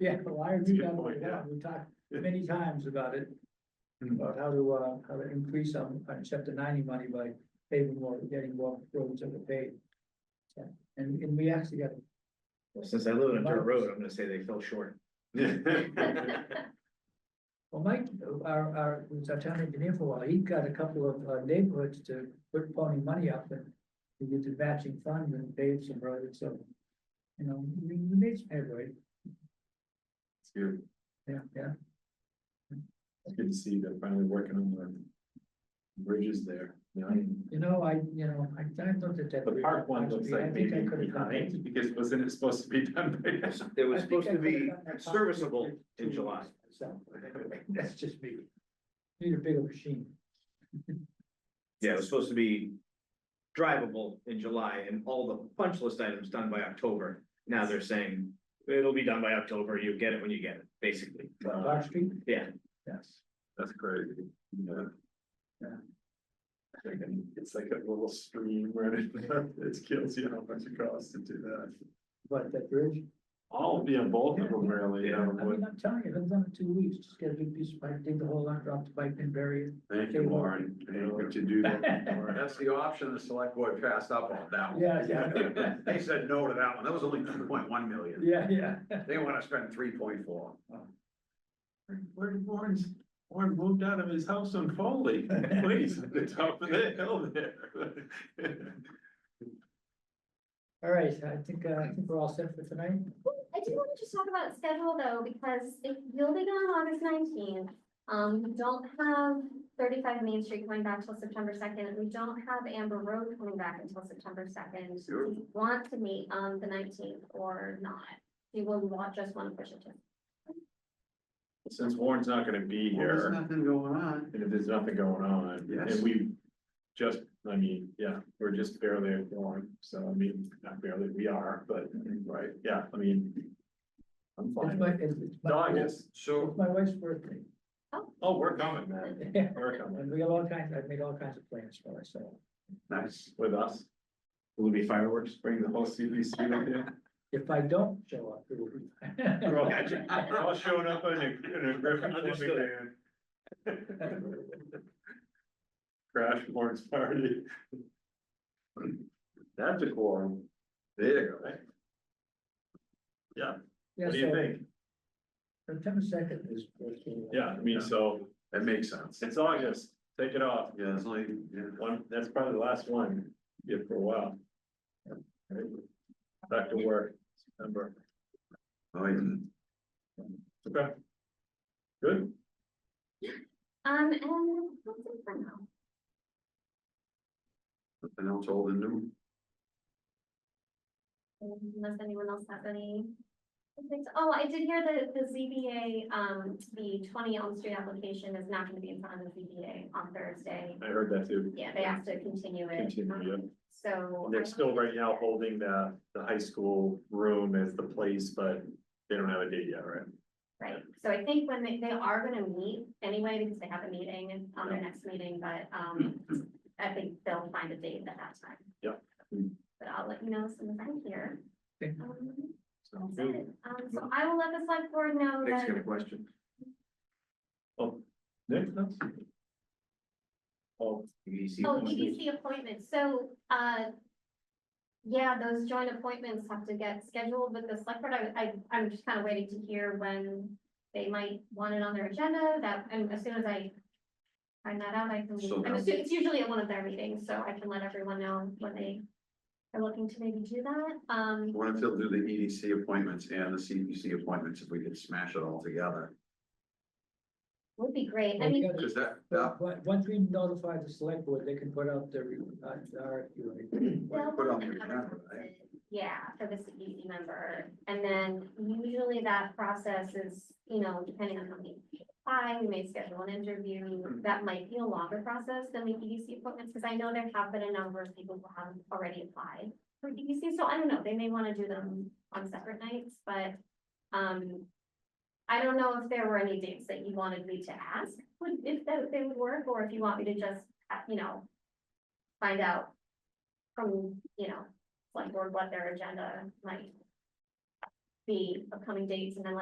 Yeah, well, I a agree good that point, yeah. we talked many times about it, Hmm. about how to, uh, how to increase on, on chapter ninety money by paving more, getting more roads that were paved. So, And, and we actually got, Well, Since I live on a dirt road, I'm gonna say they fell short. well, Mike, our, our, was our town engineer for a while, he got a couple of uh, neighborhoods to put pony money up and to get the matching funds and pave some roads, so, you know, we, we made some headway, It's good, yeah, yeah. it's good to see they're finally working on the bridges there, you know, and You know, I, you know, I, I looked at that. the park one looks I like think maybe I could've done that. behind, because wasn't it supposed to be done by now? It I was think supposed I to could've be done that possibly serviceable two in years July. ago, so, That's just me. Need a bigger machine. Yeah, it was supposed to be drivable in July and all the punch list items done by October. Now they're saying it'll be done by October. You get it when you get it, basically. Large street? Uh, Yeah. Yes. That's crazy, yeah. Yeah. It's like a little stream where it, it kills you how much it costs to do that. But that bridge, All of them, both of them really, yeah, I mean, I'm telling you, I've done it two weeks, just get a big piece of pipe, dig the hole out, drop the pipe and bury it. thank you, Warren, thank you to do that. Warren. That's the option the select board passed up on that one. Yeah, yeah, They said no to that one. That was only two point one million. yeah, yeah. They want to spend three point four. Where did Warren's, Warren moved out of his house on Foley, please, at the top of the hill there. All right, I think, uh, I think we're all set for tonight. I do want to just talk about schedule though, because if building on August nineteenth, um, we don't have thirty-five Main Street coming back till September second, and we don't have Amber Road coming back until September second. Sure. Do you want to meet on the nineteenth or not? Do you want, just want to push it to? Since Warren's not gonna be here, nothing going on. and if there's nothing going on, Yes. and we just, I mean, yeah, we're just barely at Warren, so I mean, not barely, we are, but, right, yeah, I mean. I'm It's fine. my, it's it's It's my, it's August, So my wife's birthday. oh, we're coming, man, Yeah, we're coming, And we got all kinds, I've made all kinds of plans for myself. nice. with us. Will it be fireworks? Bring the whole CBC up there. If I don't show up, it will be. We're all- we're all showing up in a, in a Griffin Understood. flipping van. Crash Lawrence party. That's a quorum. There you go. Yeah, What do you so think? September second is. is, uh, Yeah, I mean, so That makes sense. it's August, take it off. Yeah, it's like, yeah. One, that's probably the last one, yeah, for a while. Right? Back to work, September. Oh, yeah. Okay. Good. Um, and that's it for now. Nothing else old and new. Unless anyone else has any. things- Oh, I did hear that the ZBA, um, the twenty Elm Street application is not gonna be in front of the ZBA on Thursday. I heard that too. Yeah, they asked to continue it. Continue, yeah. um, So. I They're don't still think- right now holding the, the high school room as the place, but they don't have a date yet, right? Right, so I think when they, they are gonna meet anyway, because they have a meeting on their next meeting, but, um, I think they'll find a date at that time. Yeah. But I'll let you know as soon as I'm here. Okay. Um, So, that's it. Um, so I will let the select board know Nick's that. got a question. Nick, that's. Oh, EDC Oh, E appointments. EDC appointments, so, uh. Yeah, those joint appointments have to get scheduled with the select board, I, I, I'm just kind of waiting to hear when. They might want it on their agenda, that, and as soon as I. Find that out, I can, So I'm now- assu- it's usually at one of their meetings, so I can let everyone know when they. Are looking to maybe do that, um, What if they'll do the EDC appointments and the CPC appointments if we could smash it all together? would be great, I Well, we mean, gotta- Cause that, that, But, but once we notify the select board, they can put out their, re- uh, our, you know, we they'll. put on the have agenda, a- right? Yeah, for the CPC member, and then usually that process is, you know, depending on how many people apply, we may schedule an interview, Mm-hmm. that might be a longer process than the EDC appointments, because I know there have been a number of people who have already applied for EDC, so I don't know, they may want to do them on separate nights, but, um, I don't know if there were any dates that you wanted me to ask, would, if that, they would work, or if you want me to just, uh, you know, find out from, you know, select board what their agenda might be upcoming dates and then let